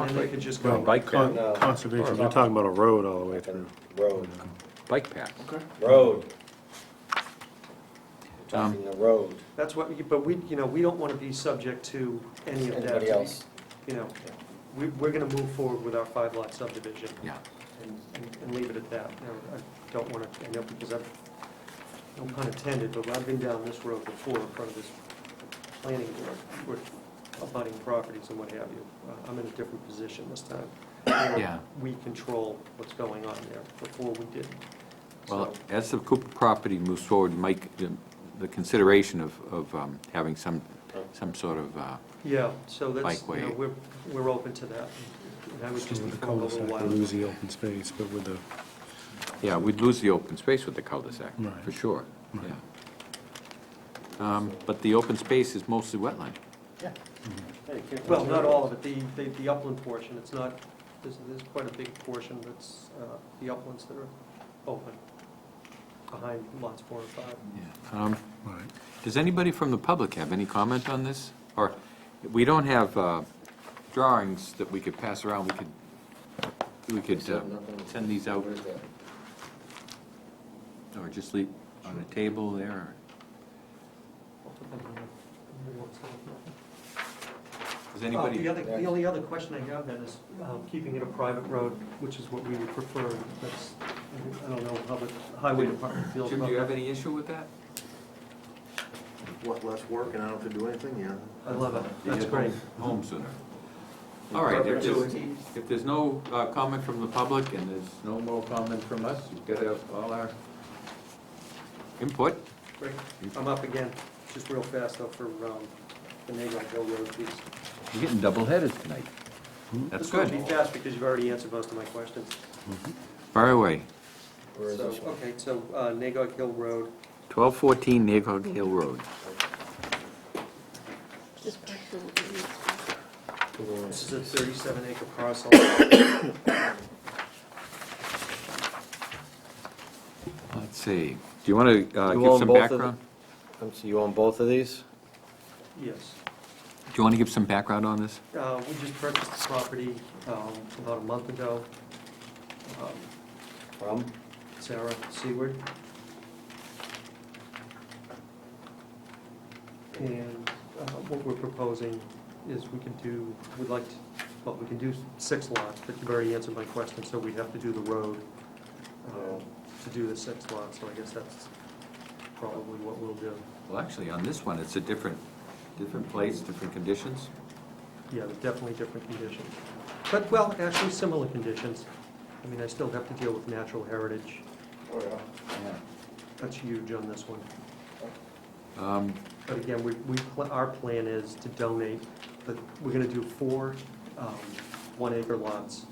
And then they could just No, go bike con- No. path, Conservation, you're talking about a road all the way through. Road, bike path. road. Talking the road, That's what, but we, you know, we don't want to be subject to any of that. anybody else? You know, we, we're going to move forward with our five lot subdivision Yeah. and, and- and leave it at that. You know, I don't want to, I know because I've, no pun intended, but I've been down this road before in front of this planning board with abutting properties and what have you. Uh, I'm in a different position this time. You know, Yeah. We control what's going on there. Before we didn't. Well, So- as the Cooper property moves forward, Mike, the- the consideration of, of um, having some, some sort of, uh, Yeah, so that's, you know, Bikeway. we're, we're open to that. And I was just With the informed a little cul-de-sac, while. we lose the open space, but with the, yeah, we'd lose the open space with the cul-de-sac, Right. for sure, Right. yeah. Um, But the open space is mostly wetland. Well, not all of it, the, the the upland portion, it's not, there's, there's quite a big portion that's, uh, the uplands that are open behind lots four and five. Yeah. Um, all right. Does anybody from the public have any comment on this? Or, we don't have uh, drawings that we could pass around, we could, we could uh, send these out, Where's that? or just leave on a table there, or- I'll put them in the- in the works. does Uh, anybody? The other, the only other question I have then is, um, keeping it a private road, which is what we would prefer, that's, I don't know how the highway department feels Jim, do about you have that. any issue with that? What, less work and I don't have to do anything, yeah. I love it, You that's get great. Home sooner. All right, if there's, if there's no uh, comment from the public and there's no more comment from us, we've got to have all our input. Great. I'm up again, just real fast though for um, the neighborhood Hill Road piece. You're getting double-headed tonight. That's This will good. Hmm? be fast because you've already answered most of my questions. Far away, Where is So, this one? Okay, so uh, Nagog Hill Road, 1214 Nagog Hill Road. this is a 37 acre parcel. Let's see, do you want to You give want some both of background? Um, So you own both of these? Yes. Do you want to give some background on this? Uh, We just purchased the property um, about a month ago. Um, From? Sarah Seward. And uh, what we're proposing is we can do, we'd like, to well, we can do six lots, but you've already answered my question, so we have to do the road um, to do the six lots, so I guess that's probably what we'll do. Well, actually, on this one, it's a different, different place, different conditions. Yeah, they're definitely different conditions. But, well, actually similar conditions. I mean, I still have to deal with natural heritage. Oh, yeah. That's huge on this one. Um, But again, we, we, pl- our plan is to donate, but we're gonna do four, um, one acre lots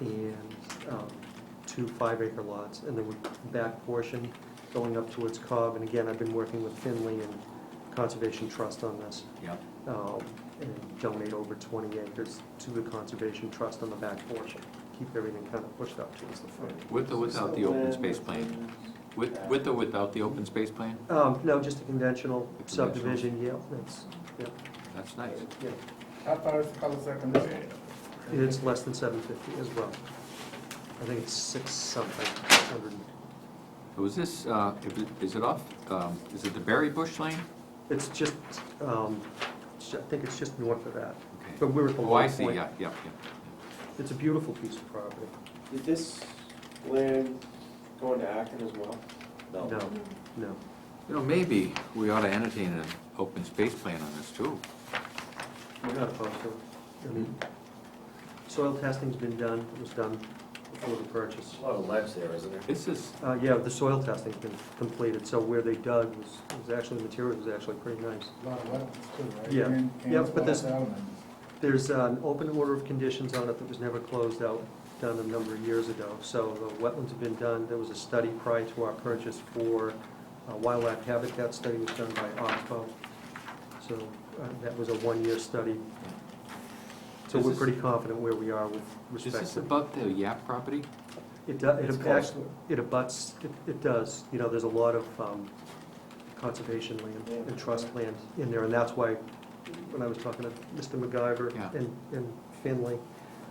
and, um, two five acre lots, and then we, back portion going up towards Cobb, and again, I've been working with Finley and Conservation Trust on this. Yeah. um, and donate over 20 acres to the Conservation Trust on the back portion. Keep everything kind of pushed up towards the front. With or without the open space plan? With, with or without the open space plan? Um, No, just a conventional A conventional. subdivision, yeah, that's, yeah, That's nice. yeah. How far is the cul-de-sac in this area? And it's less than 750 as well. I think it's six something, 100. Was this, uh, if it- is it off, um, is it the Berry Bush Lane? It's just, um, sh- I think it's just north of that. Okay. But we're at the Oh, I low see, point. yeah, yeah, yeah. It's a beautiful piece of property. Did this land go into Acton as well? No, no. You know, maybe we ought to entertain an open space plan on this too. We're not opposed to it. I mean, soil testing's been done, it was done before the purchase. A lot of ledge there, isn't there? This is, Uh, yeah, the soil testing's been completed, so where they dug was, was actually, the material was actually pretty nice. A lot of wetlands too, right? Yeah. And- and Yeah, it's but this- all settlements. There's an open order of conditions on it that was never closed out, done a number of years ago. So the wetlands have been done, there was a study prior to our purchase for uh, wildlife habitat study was done by Oxbow. So uh, that was a one-year study. So This we're is- pretty confident where we are with is respect to. this above the Yap property? It does, It's it close. actually, it abuts, it, it does, you know, there's a lot of, um, conservation land and trust land in there, and that's why, when I was talking to Mr. MacGyver Yeah. and, and Finley,